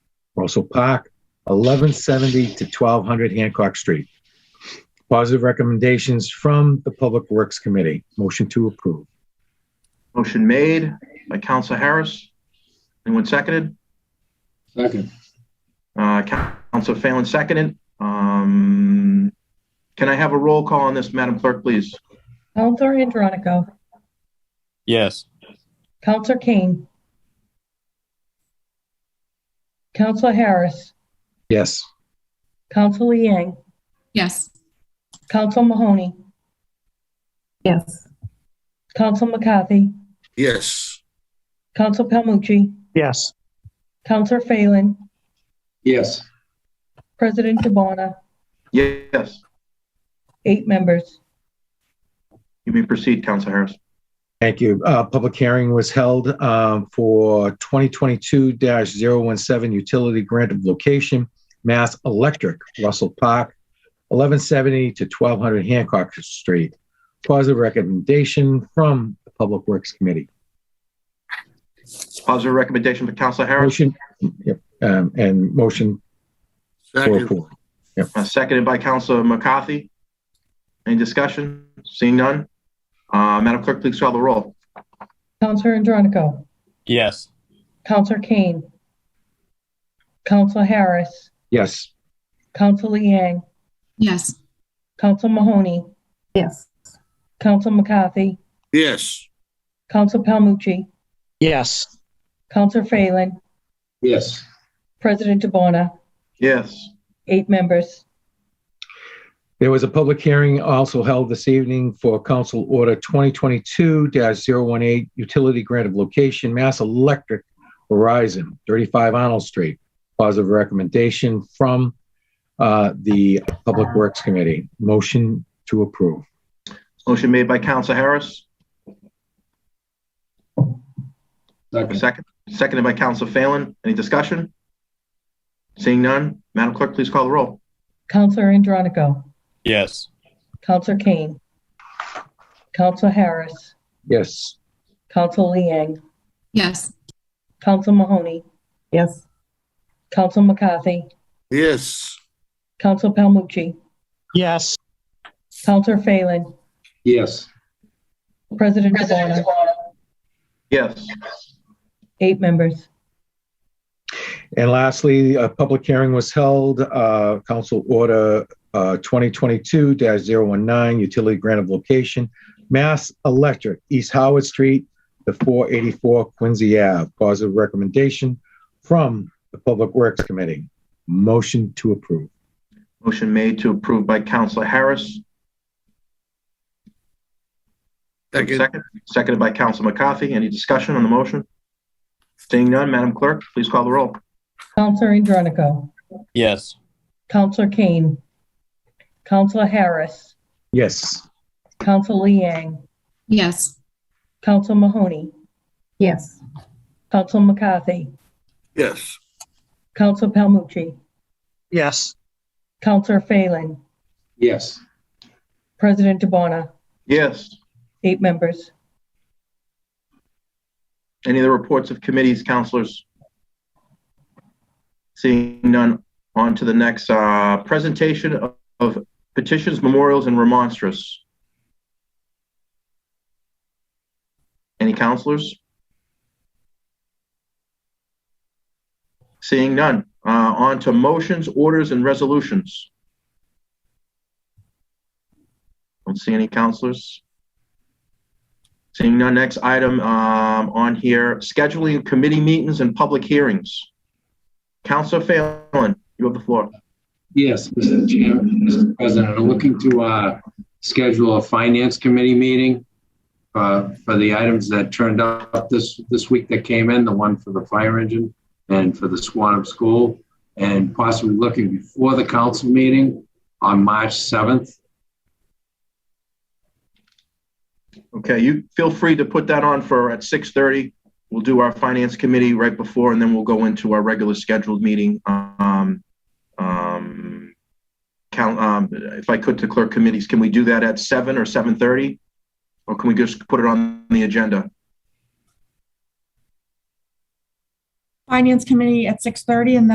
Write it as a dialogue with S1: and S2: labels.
S1: Russell Park, 1170 to 1200 Hancock Street. Positive recommendations from the Public Works Committee. Motion to approve.
S2: Motion made by Council Harris. Anyone seconded?
S3: Second.
S2: Uh, Council Phelan seconded. Um, can I have a roll call on this, Madam Clerk, please?
S4: Counselor Andronico,
S5: yes,
S4: Counselor Kane, Counselor Harris,
S1: Yes.
S4: Counselor Liang,
S6: yes,
S4: Counselor Mahoney,
S7: yes,
S4: Counselor McCarthy,
S8: yes,
S4: Counselor Palmucci,
S9: yes,
S4: Counselor Phelan,
S3: Yes.
S4: President Dubana,
S2: Yes,
S4: eight members.
S2: you may proceed, Council Harris.
S1: Thank you. Uh, Public hearing was held um, for 2022-017 utility grant of location, Mass Electric, Russell Park, 1170 to 1200 Hancock Street. Positive recommendation from the Public Works Committee.
S2: Positive recommendation for Council Harris,
S1: Motion, yep, um, and motion for
S8: second,
S1: approval. Yep.
S2: uh, seconded by Council McCarthy. Any discussion? Seeing none? Uh, Madam Clerk, please call the roll.
S4: Counselor Andronico,
S5: yes,
S4: Counselor Kane, Counselor Harris,
S1: Yes.
S4: Counselor Liang,
S6: yes,
S4: Counselor Mahoney,
S7: yes,
S4: Counselor McCarthy,
S8: yes,
S4: Counselor Palmucci,
S9: yes,
S4: Counselor Phelan,
S3: Yes.
S4: President Dubana,
S2: Yes,
S4: eight members.
S1: There was a public hearing also held this evening for Council Order 2022-018, Utility Grant of Location, Mass Electric, Verizon, 35 Arnold Street. Positive recommendation from uh, the Public Works Committee. Motion to approve.
S2: motion made by Council Harris,
S3: Second.
S2: second, seconded by Council Phelan. Any discussion? Seeing none? Madam Clerk, please call the roll.
S4: Counselor Andronico,
S5: yes,
S4: Counselor Kane, Counselor Harris,
S1: Yes.
S4: Counselor Liang,
S6: yes,
S4: Counselor Mahoney,
S7: yes,
S4: Counselor McCarthy,
S8: yes,
S4: Counselor Palmucci,
S9: yes,
S4: Counselor Phelan,
S3: Yes.
S4: President Dubana,
S2: Yes,
S4: eight members.
S1: And lastly, a public hearing was held, uh, Council Order uh, 2022-019, Utility Grant of Location, Mass Electric, East Howard Street, the 484 Quincy Ave. Positive recommendation from the Public Works Committee. Motion to approve.
S2: motion made to approve by Council Harris,
S8: second,
S2: second, seconded by Council McCarthy. Any discussion on the motion? Seeing none, Madam Clerk, please call the roll.
S4: Counselor Andronico,
S5: yes,
S4: Counselor Kane, Counselor Harris,
S1: Yes.
S4: Counselor Liang,
S6: yes,
S4: Counselor Mahoney,
S7: yes,
S4: Counselor McCarthy,
S8: yes,
S4: Counselor Palmucci,
S9: yes,
S4: Counselor Phelan,
S3: Yes.
S4: President Dubana,
S2: Yes,
S4: eight members.
S2: any of the reports of committees, councilors? Seeing none, on to the next, uh, presentation of- of petitions, memorials, and remonstrance. Any councilors? Seeing none, uh, on to motions, orders, and resolutions. Don't see any councilors. Seeing none, next item um, on here, scheduling committee meetings and public hearings. Counselor Phelan, you have the floor.
S3: Yes, Mr. Chair, Mr. President, I'm looking to uh, schedule a finance committee meeting uh, for the items that turned up this, this week that came in, the one for the fire engine and for the Swanham School, and possibly looking before the council meeting on March 7th.
S2: Okay, you feel free to put that on for at six thirty. We'll do our finance committee right before, and then we'll go into our regular scheduled meeting. Um, um, count, um, if I could to clerk committees, can we do that at seven or seven thirty? Or can we just put it on the agenda?
S10: Finance Committee at 6:30 and then